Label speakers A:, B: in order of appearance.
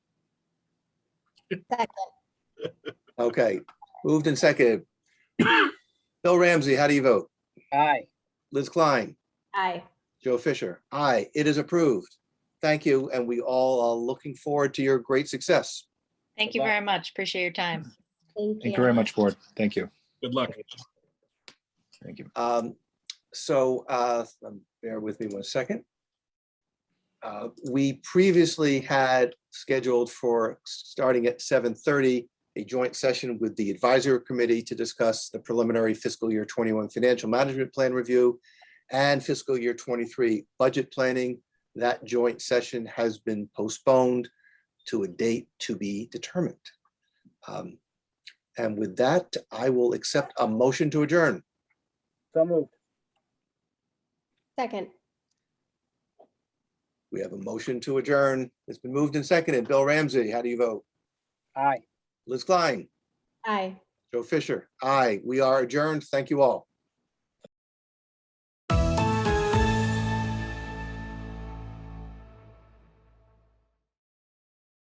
A: Okay, moved and seconded. Bill Ramsey, how do you vote?
B: Aye.
A: Liz Klein,
C: Aye.
A: Joe Fisher, aye, it is approved. Thank you, and we all are looking forward to your great success.
D: Thank you
B: Goodbye.
D: very much. Appreciate your time.
E: Thank you very much, board. Thank you.
F: Good luck.
E: Thank you.
A: Um, So uh, um, bear with me one second. Uh, We previously had scheduled for, starting at 7:30, a joint session with the advisory committee to discuss the preliminary fiscal year 21 financial management plan review and fiscal year 23 budget planning. That joint session has been postponed to a date to be determined. Um, And with that, I will accept a motion to adjourn.
B: So moved.
C: Second.
A: We have a motion to adjourn. It's been moved and seconded. Bill Ramsey, how do you vote?
B: Aye.
A: Liz Klein,
C: Aye.
A: Joe Fisher, aye. We are adjourned. Thank you all.